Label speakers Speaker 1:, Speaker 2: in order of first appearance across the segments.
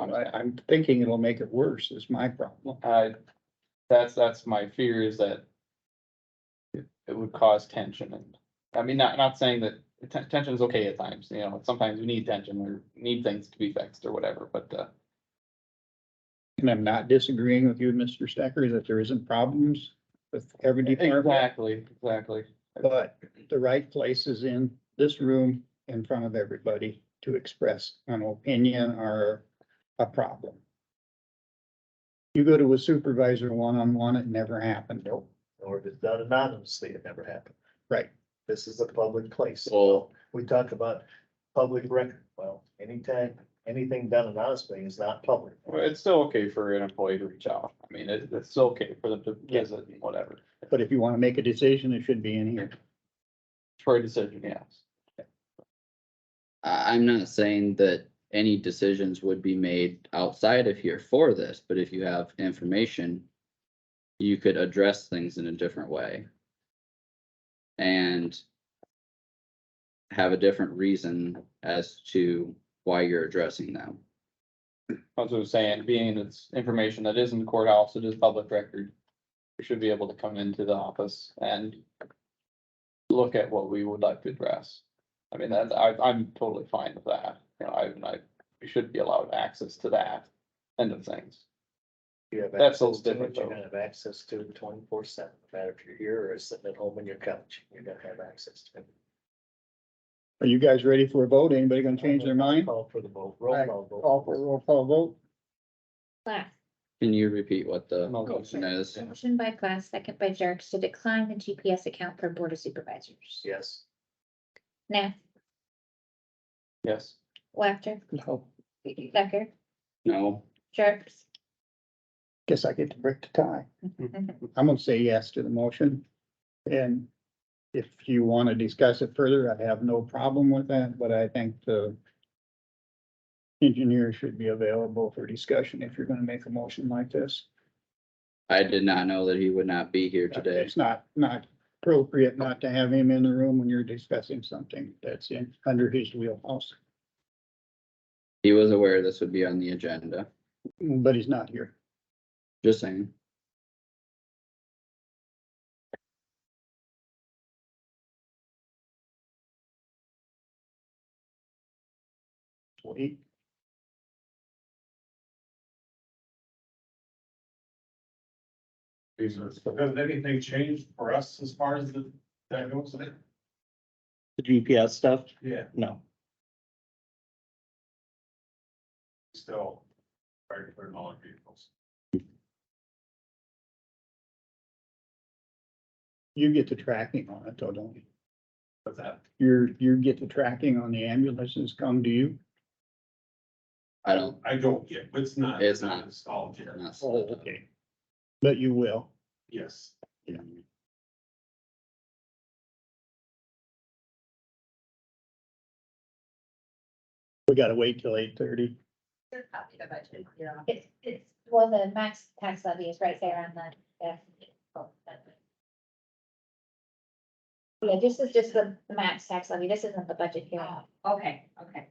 Speaker 1: out. I, I'm thinking it'll make it worse is my problem.
Speaker 2: I, that's, that's my fear is that it- it would cause tension and, I mean, not, not saying that ten- tension is okay at times, you know, sometimes we need tension or need things to be fixed or whatever, but, uh,
Speaker 1: And I'm not disagreeing with you, Mr. Stecker, that there isn't problems with every department.
Speaker 2: exactly, exactly.
Speaker 1: But the right place is in this room in front of everybody to express an opinion or a problem. You go to a supervisor one-on-one, it never happened.
Speaker 3: or if it's done anonymously, it never happened.
Speaker 1: Right.
Speaker 3: This is a public place.
Speaker 4: Well-
Speaker 3: We talk about public record. Well, anytime, anything done anonymously is not public.
Speaker 2: Well, it's still okay for an employee to reach out. I mean, it, it's still okay for them to visit and whatever,
Speaker 1: But if you want to make a decision, it should be in here.
Speaker 2: for a decision, yes.
Speaker 4: I, I'm not saying that any decisions would be made outside of here for this, but if you have information, you could address things in a different way. And have a different reason as to why you're addressing them.
Speaker 2: As I was saying, being it's information that is in the courthouse, it is public record. We should be able to come into the office and look at what we would like to address. I mean, that's, I, I'm totally fine with that. You know, I, I, we should be allowed access to that end of things.
Speaker 3: You have
Speaker 2: That's a
Speaker 3: access to
Speaker 2: little
Speaker 3: it,
Speaker 2: different,
Speaker 3: You're
Speaker 2: though.
Speaker 3: gonna have access to it twenty-four seven, no matter if you're here or sitting at home on your couch, you're gonna have access to it.
Speaker 1: Are you guys ready for a vote? Anybody gonna change their mind?
Speaker 3: Call for the vote, roll
Speaker 1: Alright,
Speaker 3: call vote.
Speaker 1: Call for a roll call vote?
Speaker 5: Plath,
Speaker 4: Can you repeat what the
Speaker 2: No, no,
Speaker 4: motion is?
Speaker 5: motion by Plath, second by Jerks to decline the GPS account for Board of Supervisors.
Speaker 3: Yes,
Speaker 5: Nah,
Speaker 2: Yes,
Speaker 5: Wafter,
Speaker 1: No.
Speaker 5: Stecker,
Speaker 4: No,
Speaker 5: Jerks,
Speaker 1: Guess I get to break the tie. I'm gonna say yes to the motion. And if you want to discuss it further, I have no problem with that, but I think the engineer should be available for discussion if you're gonna make a motion like this.
Speaker 4: I did not know that he would not be here today.
Speaker 1: It's not, not appropriate not to have him in the room when you're discussing something that's in, under his wheelhouse,
Speaker 4: He was aware this would be on the agenda,
Speaker 1: but he's not here.
Speaker 4: just saying.
Speaker 1: Wait.
Speaker 6: Has anything changed for us as far as the, that goes?
Speaker 7: the GPS stuff?
Speaker 6: Yeah,
Speaker 7: No.
Speaker 6: still. Regular knowledge vehicles.
Speaker 1: You get the tracking on it though, don't you?
Speaker 6: But that,
Speaker 1: You're, you get the tracking on the ambulances come to you?
Speaker 4: I don't,
Speaker 6: I don't get, it's not.
Speaker 4: It's not.
Speaker 6: Installed yet,
Speaker 4: I'm not.
Speaker 1: Oh, okay. But you will.
Speaker 6: yes.
Speaker 1: We gotta wait till eight thirty.
Speaker 5: it's, it's, well, the max tax levy is right there on the. yeah. Yeah, this is just the the max tax levy, this isn't the budget here.
Speaker 8: Okay, okay.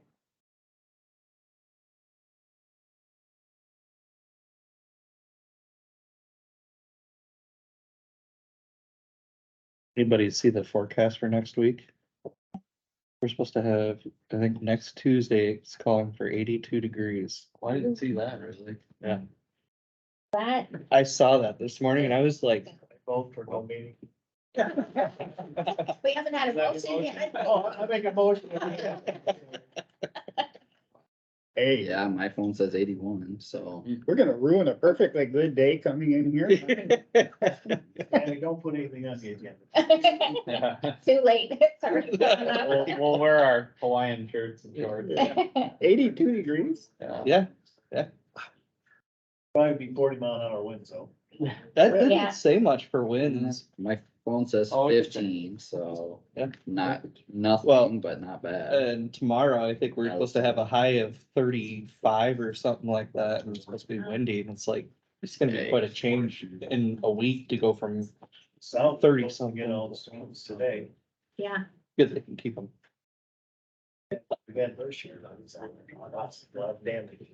Speaker 7: Anybody see the forecast for next week? We're supposed to have, I think, next Tuesday, it's calling for eighty-two degrees.
Speaker 4: Why didn't see that really?
Speaker 5: That,
Speaker 7: I saw that this morning and I was like,
Speaker 3: vote for no meeting.
Speaker 5: we haven't had a motion yet.
Speaker 3: Oh, I make a motion.
Speaker 1: Hey,
Speaker 4: Yeah, my phone says eighty-one, so
Speaker 1: we're gonna ruin a perfectly good day coming in here.
Speaker 3: And don't put anything on the agenda.
Speaker 2: yeah.
Speaker 5: Too late, sorry.
Speaker 2: We'll, we'll wear our Hawaiian shirts and shorts.
Speaker 1: Eighty-two degrees?
Speaker 2: Yeah.
Speaker 7: yeah,
Speaker 3: Probably be forty mile an hour winds though.
Speaker 5: Yeah.
Speaker 7: that didn't say much for winds.
Speaker 4: my phone says
Speaker 2: Oh, it's-
Speaker 4: fifteen, so
Speaker 7: Yeah.
Speaker 4: not,
Speaker 7: Well, uh,
Speaker 4: nothing, but not bad.
Speaker 7: And tomorrow, I think we're supposed to have a high of thirty-five or something like that, and it's supposed to be windy, and it's like, it's gonna be quite a change in a week to go from,
Speaker 3: South.
Speaker 7: 30
Speaker 3: Get all the storms today.
Speaker 5: Yeah.
Speaker 7: good, they can keep them.
Speaker 3: We've had those years, I was, lots of damage.